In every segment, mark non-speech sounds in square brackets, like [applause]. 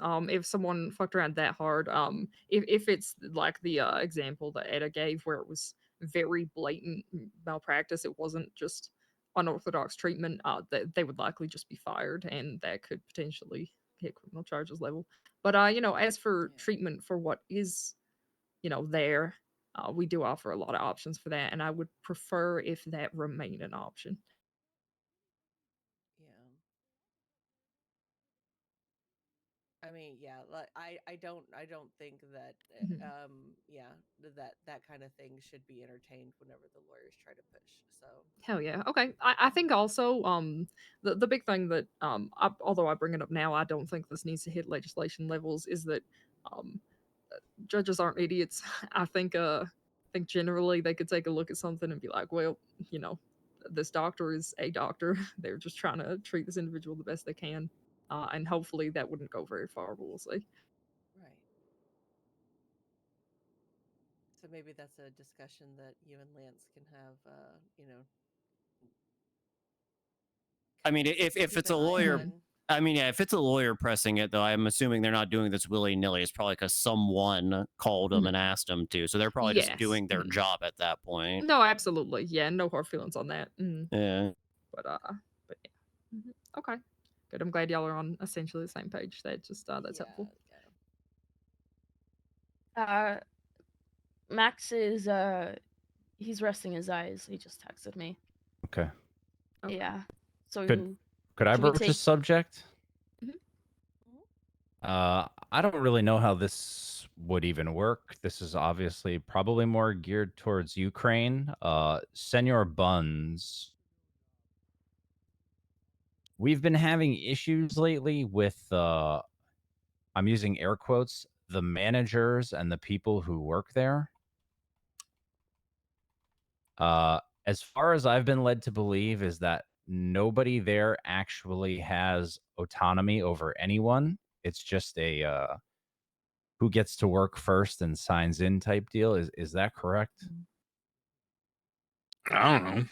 um, if someone fucked around that hard, um, if if it's like the uh, example that Etta gave, where it was very blatant m- malpractice, it wasn't just unorthodox treatment. Uh, that they would likely just be fired, and that could potentially hit criminal charges level. But uh, you know, as for Yeah. treatment for what is, you know, there, uh, we do offer a lot of options for that, and I would prefer if that remained an option. Yeah. I mean, yeah, like I I don't I don't think that uh, Mhm. um yeah, th- that that kind of thing should be entertained whenever the lawyers try to push. So, Hell yeah. Okay. I, I think also um the, the big thing that um I, although I bring it up now, I don't think this needs to hit legislation levels is that um judges aren't idiots. [laughs] I think uh I think generally they could take a look at something and be like, well, you know, this doctor is a doctor. [laughs] They're just trying to treat this individual the best they can. Uh, and hopefully that wouldn't go very far, but we'll see. right. So maybe that's a discussion that you and Lance can have uh, you know, I mean, if if keep it's an a eye lawyer, on. I mean, yeah, if it's a lawyer pressing it, though, I'm assuming they're not doing this willy nilly. It's probably because someone called them Mhm. and asked them to. So they're probably just Yes. doing their mhm. job at that point. No, absolutely. Yeah, no hard feelings on that. Mm. Yeah. but uh but yeah. Mhm. Mm-hmm. okay good i'm glad y'all are on essentially the same page that just Oh, uh that's Yeah, helpful yeah. Uh, Max is uh, he's resting his eyes. He just texted me. Okay. okay. Yeah. So Good. Could I Can we broach take- Mm-hmm. a subject? Mhm. Uh, I don't really know how this would even work. This is obviously probably more geared towards Ukraine. Uh, Senor Buns, we've been having issues lately with uh, I'm using air quotes, the managers and the people who work there. Uh, as far as I've been led to believe, is that nobody there actually has autonomy over anyone. It's just a uh, who gets to work first and signs in type deal. Is is that correct? I don't know.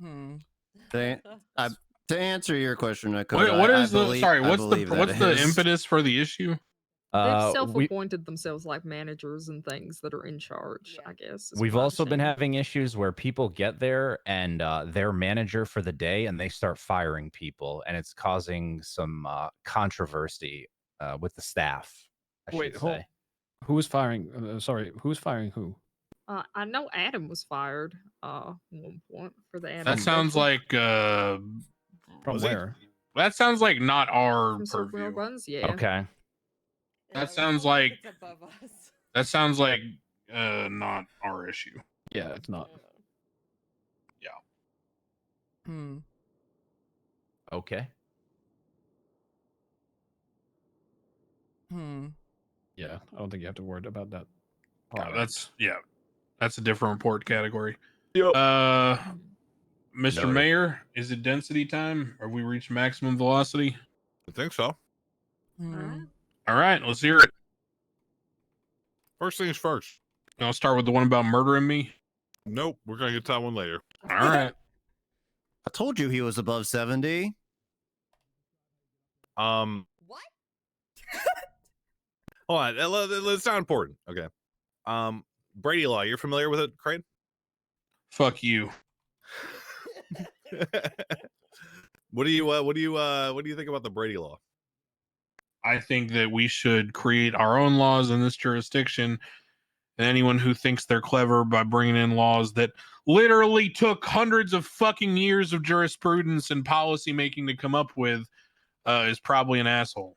Hmm. [laughs] They- I- To answer your question, I What, what is the sorry? What's the what's the impetus for the issue? they've Uh, we, self-appointed themselves like managers and things that are in charge Yeah. i guess is we've my also been understanding. having issues where people get there and uh, their manager for the day, and they start firing people, and it's causing some uh, controversy uh, with the staff. I Wait, should hold- say. Who's firing? Uh, sorry, who's firing who? uh, i know adam was fired uh at one point for the adam That sounds Central- like uh, From was he- where? that sounds like not our from Silk Road purview. runs yeah Okay. I that don't sounds know "Oh, if like- it's above us. That sounds like uh, not our issue. Yeah, it's not. [laughs] Yeah. Hmm. Okay. Hmm. Yeah, I don't think you have to worry about that. Yeah, part of it. that's yeah, that's a different report category. Yep. Uh, Mr. Noted. Mayor, is it density time? Have we reached maximum velocity? I think so. All Uh-huh. Hmm. right. All right, let's hear it. First things first. And I'll start with the one about murdering me. Nope, we're gonna get to that one later. All right. I told you he was above 70. Um, What? [laughs] hold on. that- that- that- That's not important. Okay. Um, Brady Law. You're familiar with it, Crane? [laughs] Fuck you. what do you uh, What do you uh, What do you think about the Brady Law? I think that we should create our own laws in this jurisdiction. And anyone who thinks they're clever by bringing in laws that literally took hundreds of fucking years of jurisprudence and policy making to come up with uh, is probably an asshole.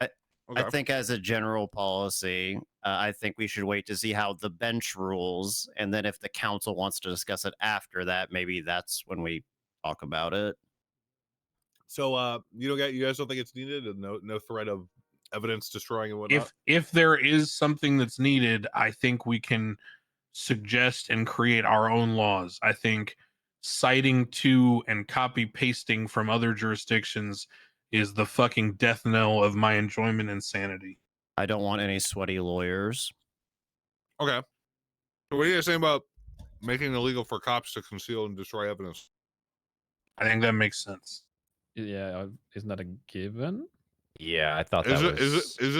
I think, as a general policy, uh, I think we should wait to see how the bench rules. And then if the council wants to discuss it after that, maybe that's when we talk about it. so. Uh, you don't get. You guys don't think it's needed? and No, no threat of evidence destroying and whatnot. If if there is something that's needed, I think we can suggest and create our own laws. I think citing to and copy pasting from other jurisdictions is the fucking death knell of my enjoyment and sanity. I don't want any sweaty lawyers. okay. So what do you guys think about making it illegal for cops to conceal and destroy evidence? I think that makes sense. Yeah, isn't that a given? Yeah, I thought Is that was. it? Is it? Is it?